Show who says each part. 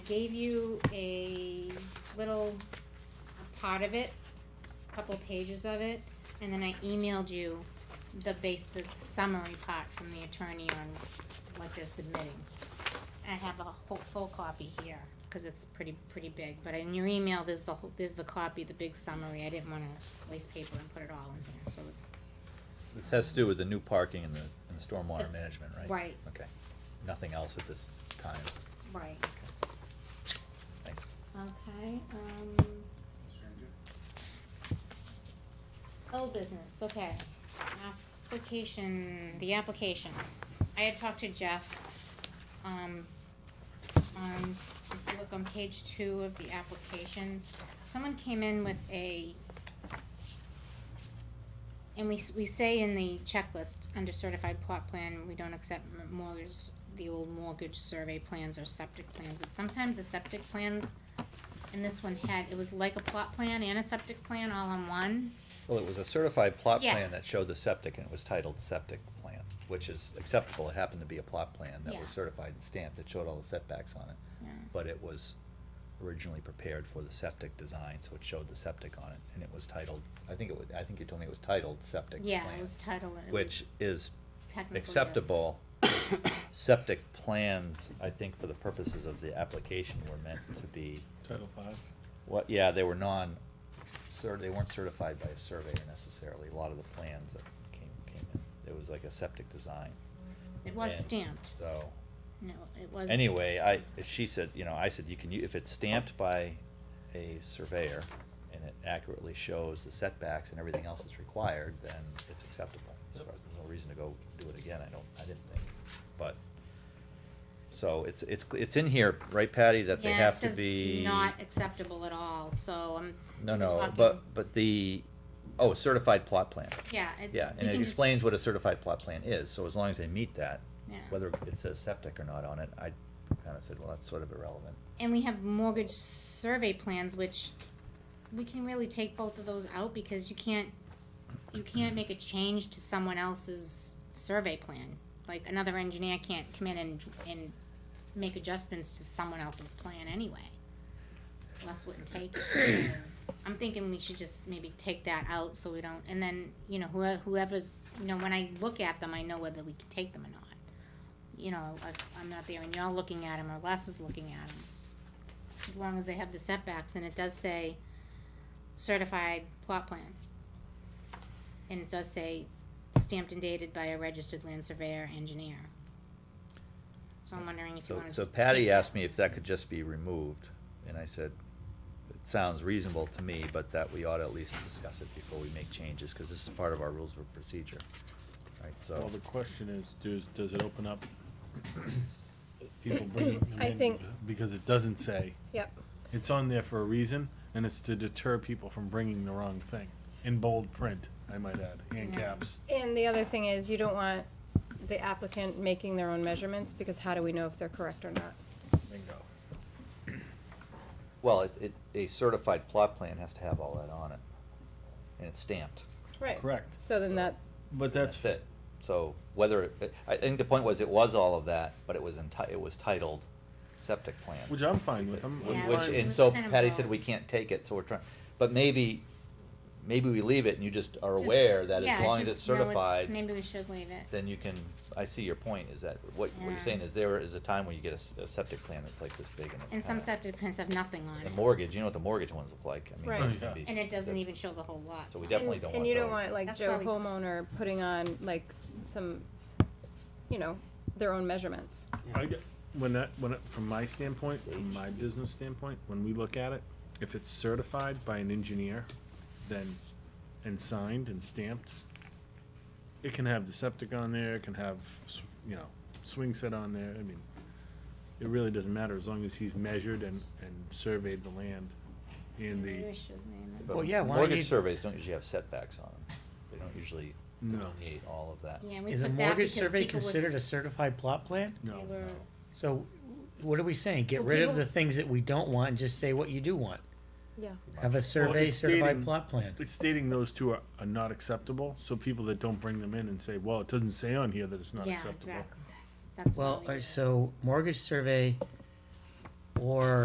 Speaker 1: gave you a little part of it, a couple pages of it, and then I emailed you the base, the summary part from the attorney on what they're submitting. I have a whole, full copy here, cause it's pretty, pretty big, but in your email, there's the whole, there's the copy, the big summary, I didn't wanna waste paper and put it all in here, so it's,
Speaker 2: This has to do with the new parking and the, and the stormwater management, right?
Speaker 1: Right.
Speaker 2: Okay, nothing else at this time,
Speaker 1: right,
Speaker 2: thanks.
Speaker 1: okay, um. Old business, okay. Application, the application. I had talked to Jeff, um, on, if you look on page two of the application, someone came in with a, and we, s- we say in the checklist, under certified plot plan, we don't accept m- mortgage, the old mortgage survey plans or septic plans, but sometimes the septic plans, and this one had, it was like a plot plan and a septic plan all in one.
Speaker 2: Well, it was a certified plot
Speaker 1: Yeah.
Speaker 2: plan that showed the septic, and it was titled septic plan, which is acceptable, it happened to be a plot plan that
Speaker 1: Yeah.
Speaker 2: was certified and stamped, it showed all the setbacks on it.
Speaker 1: Yeah.
Speaker 2: But it was originally prepared for the septic design, so it showed the septic on it, and it was titled, I think it was, I think you told me it was titled septic plan.
Speaker 1: Yeah, it was titled. it was
Speaker 2: Which is
Speaker 1: technical, yeah.
Speaker 2: acceptable septic plans, I think for the purposes of the application, were meant to be,
Speaker 3: Title five.
Speaker 2: what, yeah, they were non, cer- they weren't certified by a surveyor necessarily, a lot of the plans that came, came in. It was like a septic design.
Speaker 1: It was
Speaker 2: And
Speaker 1: stamped.
Speaker 2: So,
Speaker 1: No, it was.
Speaker 2: anyway, I, she said, you know, I said, you can, u- if it's stamped by a surveyor and it accurately shows the setbacks and everything else that's required, then it's acceptable. As far as, there's no reason to go do it again, I don't, I didn't think, but, so it's, it's, it's in here, right Patty, that they
Speaker 1: Yeah, it
Speaker 2: have to
Speaker 1: says
Speaker 2: be.
Speaker 1: Not acceptable at all, so I'm.
Speaker 2: No,
Speaker 1: we're
Speaker 2: no,
Speaker 1: talking-
Speaker 2: but, but the, oh, certified plot plan.
Speaker 1: Yeah. it-
Speaker 2: Yeah,
Speaker 1: we
Speaker 2: and it
Speaker 1: can just-
Speaker 2: explains what a certified plot plan is, so as long as they meet that,
Speaker 1: Yeah.
Speaker 2: whether it says septic or not on it, I kinda said, well, that's sort of irrelevant.
Speaker 1: And we have mortgage survey plans, which we can really take both of those out because you can't, you can't make a change to someone else's survey plan. Like another engineer can't come in and, and make adjustments to someone else's plan anyway. Less wouldn't take it. So I'm thinking we should just maybe take that out so we don't, and then, you know, whoe- whoever's, you know, when I look at them, I know whether we can take them or not. You know, I- I'm not there and y'all looking at them or Les is looking at them as long as they have the setbacks, and it does say certified plot plan. And it does say stamped and dated by a registered land surveyor engineer. So I'm wondering if you
Speaker 2: So-
Speaker 1: wanna just.
Speaker 2: So Patty
Speaker 1: take-
Speaker 2: asked me if that could just be removed, and I said, it sounds reasonable to me, but that we ought to at least discuss it before we make changes, cause this is part of our rules of procedure, right,
Speaker 3: Well,
Speaker 2: so.
Speaker 3: the question is, does, does it open up people bringing them
Speaker 4: I
Speaker 3: in?
Speaker 4: think-
Speaker 3: Because it doesn't say,
Speaker 4: Yep,
Speaker 3: it's on there for a reason, and it's to deter people from bringing the wrong thing, in bold print, I might add, and
Speaker 1: Yeah.
Speaker 3: caps.
Speaker 4: and the other thing is, you don't want the applicant making their own measurements, because how do we know if they're correct or not?
Speaker 3: Bingo.
Speaker 2: Well, it, it, a certified plot plan has to have all that on it, and it's stamped.
Speaker 4: Right.
Speaker 3: Correct,
Speaker 4: So then that,
Speaker 3: but that's.
Speaker 2: That's it. So whether, it- I think the point was it was all of that, but it was enti- it was titled septic plan.
Speaker 3: Which I'm fine with, I'm-
Speaker 1: I'm
Speaker 2: Which,
Speaker 1: fine.
Speaker 2: and so
Speaker 1: Kind of
Speaker 2: Patty
Speaker 1: both.
Speaker 2: said we can't take it, so we're trying, but maybe, maybe we leave it and you just are
Speaker 1: Just-
Speaker 2: aware that as
Speaker 1: yeah,
Speaker 2: long as it's
Speaker 1: just know
Speaker 2: certified,
Speaker 1: Maybe we should leave it.
Speaker 2: then you can, I see your point, is that, what, what
Speaker 1: Yeah.
Speaker 2: you're saying is there is a time when you get a s- a, septic plan that's like this big and it
Speaker 1: And some
Speaker 2: kinda-
Speaker 1: septic plans have nothing on
Speaker 2: The
Speaker 1: it.
Speaker 2: mortgage, you know what the mortgage ones look like, I mean,
Speaker 4: Right.
Speaker 2: that's
Speaker 3: Oh,
Speaker 2: gonna
Speaker 3: yeah.
Speaker 2: be.
Speaker 1: And it doesn't
Speaker 2: that-
Speaker 1: even show the whole lot.
Speaker 2: So we
Speaker 1: size.
Speaker 2: definitely
Speaker 4: and-
Speaker 2: don't
Speaker 4: And
Speaker 2: want
Speaker 4: you don't
Speaker 2: those.
Speaker 4: want, like,
Speaker 1: That's
Speaker 4: Joe
Speaker 1: why we-
Speaker 4: homeowner putting on, like, some, you know, their own measurements.
Speaker 3: I get, when that, when, it- from my standpoint, from
Speaker 2: Age.
Speaker 3: my business standpoint, when we look at it, if it's certified by an engineer, then, and signed and stamped, it can have the septic on there, it can have, s- you know, swing set on there, I mean, it really doesn't matter as long as he's measured and, and surveyed the land and
Speaker 1: Maybe we
Speaker 3: the,
Speaker 1: should name it.
Speaker 2: But
Speaker 5: Well, yeah, why don't you-
Speaker 2: Mortgage surveys don't usually have setbacks on them, they don't usually
Speaker 3: No.
Speaker 2: delineate all of that.
Speaker 1: Yeah, we
Speaker 5: Is a
Speaker 1: put that
Speaker 5: mortgage
Speaker 1: because
Speaker 5: survey
Speaker 1: people were
Speaker 5: considered a
Speaker 1: s-
Speaker 5: certified plot plan?
Speaker 1: they
Speaker 3: no,
Speaker 1: were-
Speaker 3: no.
Speaker 5: So what are we saying? Get
Speaker 1: Well,
Speaker 5: rid of
Speaker 1: people-
Speaker 5: the things that we don't want and just say what you do want.
Speaker 4: Yeah.
Speaker 5: Have a survey
Speaker 3: it's
Speaker 5: certified
Speaker 3: stating-
Speaker 5: plot plan.
Speaker 3: It's stating those two are, are not acceptable, so people that don't bring them in and say, well, it doesn't say on here that it's not
Speaker 1: Yeah,
Speaker 3: acceptable.
Speaker 5: uh,
Speaker 1: exactly. That's, that's why
Speaker 5: Well,
Speaker 1: we
Speaker 5: uh,
Speaker 1: did it.
Speaker 5: so mortgage survey or